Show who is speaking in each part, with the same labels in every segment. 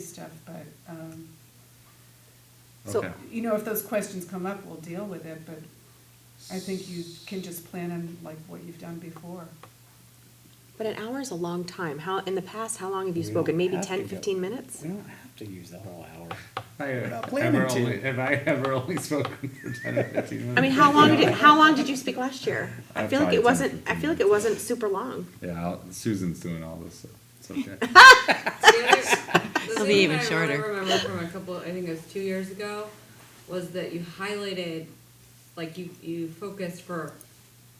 Speaker 1: stuff, but, um,
Speaker 2: So,
Speaker 3: Okay.
Speaker 1: you know, if those questions come up, we'll deal with it, but I think you can just plan on like what you've done before.
Speaker 2: but an hour is a long time. How, in the past, how long have you
Speaker 4: We
Speaker 2: spoken?
Speaker 4: don't
Speaker 2: Maybe
Speaker 4: have to
Speaker 2: 10,
Speaker 4: go-
Speaker 2: 15 minutes?
Speaker 4: We don't have to use the whole hour.
Speaker 3: I uh,
Speaker 4: Not
Speaker 3: have
Speaker 4: planning
Speaker 3: ever
Speaker 4: to.
Speaker 3: only, have I ever only spoken for ten or fifteen minutes?
Speaker 2: I mean, how long did, it- how long did you speak last year? I
Speaker 3: Uh,
Speaker 2: feel like it
Speaker 3: probably 10,
Speaker 2: wasn't, I
Speaker 3: 15
Speaker 2: feel like it wasn't super long.
Speaker 3: Yeah, I'll- Susan's doing all this, so it's okay.
Speaker 5: It'll
Speaker 6: It'll be even shorter.
Speaker 5: I really remember from a couple, I think it was two years ago, was that you highlighted, like you, you focused for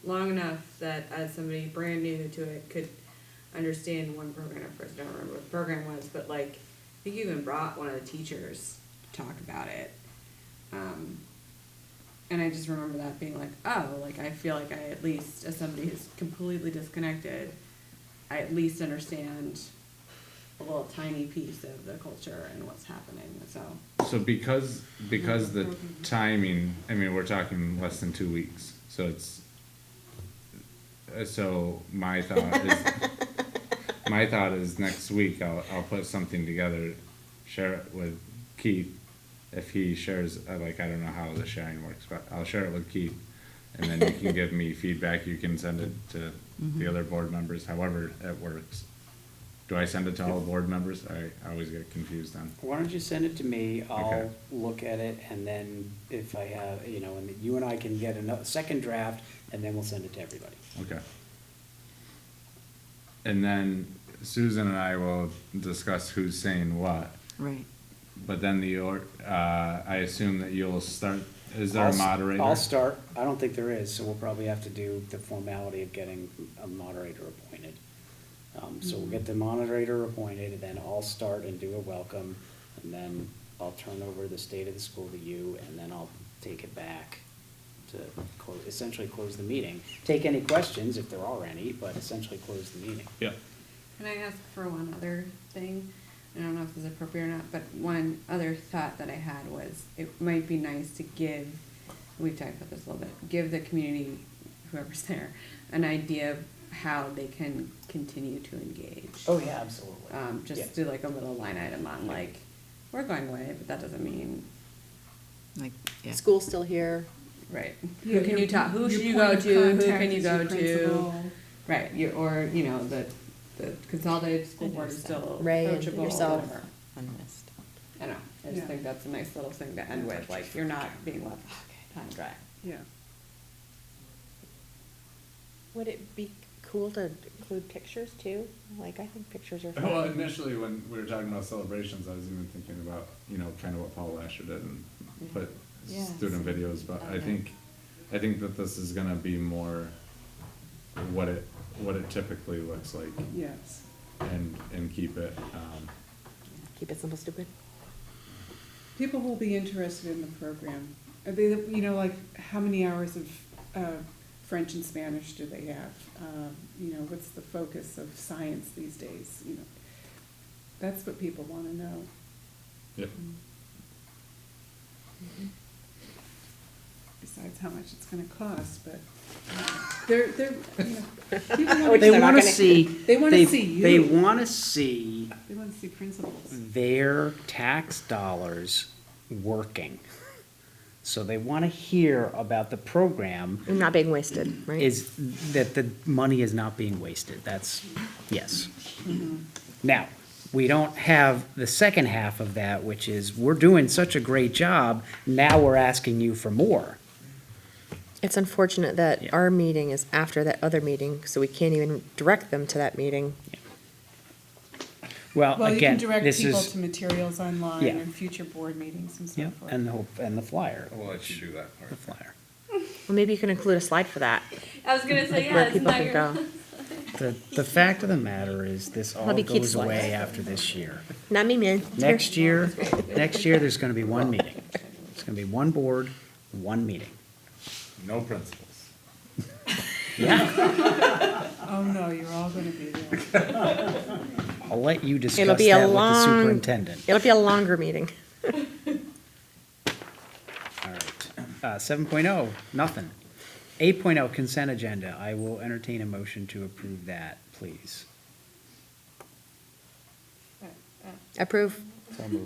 Speaker 5: long enough that as somebody brand new to it could understand one program at first. I don't remember what the program was, but like I think you even brought one of the teachers to talk about it. Um, and I just remember that being like, oh, like I feel like I at least, as somebody who's completely disconnected, I at least understand a little tiny piece of the culture and what's happening. So
Speaker 3: So because, because the timing, I mean, we're talking less than two weeks, so it's, uh, so my thought is, my thought is next week, I'll, I'll put something together, share it with Keith. If he shares, uh, like, I don't know how the sharing works, but I'll share it with Keith. And then you can give me feedback, you can send it to the other board members, however it works. Do I send it to all board members? I, I always get confused on.
Speaker 4: Why don't you send it to me,
Speaker 3: Okay.
Speaker 4: I'll look at it, and then if I have, you know, and you and I can get a second draft, and then we'll send it to everybody.
Speaker 3: Okay. And then Susan and I will discuss who's saying what,
Speaker 6: Right.
Speaker 3: but then the, or, uh, I assume that you'll start, is there
Speaker 4: I'll
Speaker 3: a
Speaker 4: s-
Speaker 3: moderator?
Speaker 4: I'll start, I don't think there is, so we'll probably have to do the formality of getting a moderator appointed. Um, so we'll get the moderator appointed, and then I'll start and do a welcome, and then I'll turn over the state of the school to you, and then I'll take it back to close, essentially close the meeting. Take any questions, if there are any, but essentially close the meeting.
Speaker 3: Yeah.
Speaker 5: can I ask for one other thing? I don't know if it's appropriate or not, but one other thought that I had was it might be nice to give. We've talked about this a little bit. Give the community, whoever's there, an idea of how they can continue to engage.
Speaker 4: Oh, yeah, absolutely.
Speaker 5: um,
Speaker 4: Yeah.
Speaker 5: just do like a little line item on like, we're going away, but that doesn't mean,
Speaker 6: Like, yeah.
Speaker 2: School's still here.
Speaker 5: right,
Speaker 1: Yeah,
Speaker 5: who can
Speaker 1: your-
Speaker 5: you talk, who
Speaker 1: your
Speaker 5: should you
Speaker 1: point
Speaker 5: go
Speaker 1: of
Speaker 5: to, who
Speaker 1: contact
Speaker 5: can you
Speaker 1: is your
Speaker 5: go to?
Speaker 1: principal.
Speaker 5: Right, you, or, you know, the, the consolidated school board is still
Speaker 6: Ray and
Speaker 5: approachable,
Speaker 6: yourself.
Speaker 5: whatever.
Speaker 6: Unmissed.
Speaker 5: I know, I
Speaker 1: Yeah.
Speaker 5: just think that's a nice little thing to end with, like, you're not being left high and dry.
Speaker 1: Yeah.
Speaker 2: Would it be cool to include pictures too? Like, I think pictures
Speaker 4: Oh,
Speaker 2: are
Speaker 3: Well, initially, when we were talking about celebrations, I was even thinking about, you know, kind of what Paul Lasher did and put
Speaker 5: Yes.
Speaker 3: student videos, but I
Speaker 5: Okay.
Speaker 3: think, I think that this is gonna be more what it, what it typically looks like
Speaker 1: Yes.
Speaker 3: and, and keep it, um,
Speaker 2: Keep it simple, stupid.
Speaker 1: People will be interested in the program. Are they, you know, like, how many hours of, uh, French and Spanish do they have? Um, you know, what's the focus of science these days, you know? That's what people wanna know.
Speaker 3: yep.
Speaker 1: Mm-hmm. besides how much it's gonna cost, but uh, they're, they're, you know, people
Speaker 2: Which
Speaker 1: wanna,
Speaker 2: they're
Speaker 4: They
Speaker 2: not
Speaker 4: wanna
Speaker 2: gonna-
Speaker 4: see.
Speaker 1: They wanna
Speaker 4: they-
Speaker 1: see
Speaker 4: They
Speaker 1: you.
Speaker 4: wanna see
Speaker 1: they wanna see principals.
Speaker 4: Mm. their tax dollars working. So they want to hear about the program
Speaker 2: And not being wasted, right?
Speaker 4: is that the money is not being wasted. That's, yes.
Speaker 1: Mm-hmm.
Speaker 4: Now, we don't have the second half of that, which is we're doing such a great job, now we're asking you for more.
Speaker 2: It's unfortunate
Speaker 4: Yeah.
Speaker 2: that our meeting is after that other meeting, so we can't even direct them to that meeting.
Speaker 4: Well,
Speaker 1: Well, you can
Speaker 4: again,
Speaker 1: direct
Speaker 4: this
Speaker 1: people to
Speaker 4: is,
Speaker 1: materials online
Speaker 4: Yeah.
Speaker 1: and future board meetings and so
Speaker 4: yeah,
Speaker 1: forth.
Speaker 4: and the, whole- and the flyer,
Speaker 3: We'll let you do that part.
Speaker 4: the flyer.
Speaker 2: Well, maybe you can include a slide for that,
Speaker 5: I was gonna say,
Speaker 2: like
Speaker 5: yeah,
Speaker 2: where
Speaker 5: it's
Speaker 2: people
Speaker 5: not
Speaker 2: can
Speaker 5: your-
Speaker 2: go.
Speaker 4: The, the fact of the matter is, this all
Speaker 2: Probably keep
Speaker 4: goes
Speaker 2: slides.
Speaker 4: away after this year.
Speaker 2: Not me, man.
Speaker 4: Next year, next year, there's gonna be one meeting. It's gonna be one board, one meeting.
Speaker 3: No principles.
Speaker 1: Oh, no, you're all gonna be there.
Speaker 4: I'll let you discuss
Speaker 2: It'll
Speaker 4: that with
Speaker 2: be a
Speaker 4: the
Speaker 2: long-
Speaker 4: superintendent.
Speaker 2: It'll be a longer meeting.
Speaker 4: All right. Uh, seven nothing. Eight oh, consent agenda. I will entertain a motion to approve that, please.
Speaker 2: Approve.
Speaker 7: Tell me